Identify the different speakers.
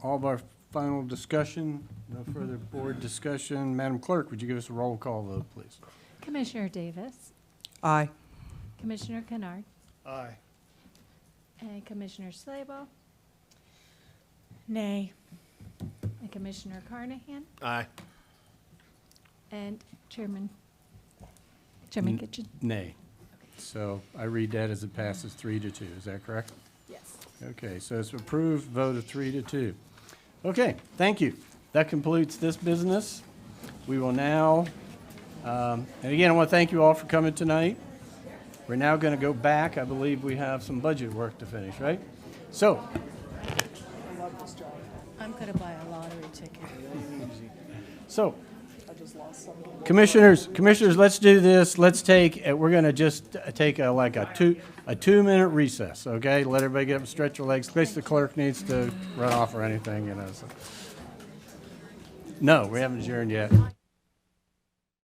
Speaker 1: all of our final discussion, no further board discussion. Madam Clerk, would you give us a roll call vote, please?
Speaker 2: Commissioner Davis,
Speaker 3: Aye.
Speaker 2: Commissioner Kennard,
Speaker 1: Aye.
Speaker 2: and Commissioner Slaybaugh,
Speaker 4: Nay.
Speaker 2: and Commissioner Carnahan,
Speaker 5: Aye.
Speaker 2: and Chairman, Chairman
Speaker 1: N-
Speaker 2: Kitchen.
Speaker 1: Nay. So I read that as it passes three to two, is that correct?
Speaker 2: Yes.
Speaker 1: Okay, so it's approved, vote of three to two. Okay, thank you. That completes this business. We will now, um, and again, I want to thank you all for coming tonight. We're now going to go back. I believe we have some budget work to finish, right? So,
Speaker 4: I'm gonna buy a lottery ticket.
Speaker 1: so,
Speaker 4: I just lost some.
Speaker 1: Commissioners, commissioners, let's do this. Let's take, uh, we're going to just uh, take a, like a two, a two-minute recess, okay? Let everybody get up and stretch their legs, in case the clerk needs to run off or anything, you know, so. No, we haven't adjourned yet.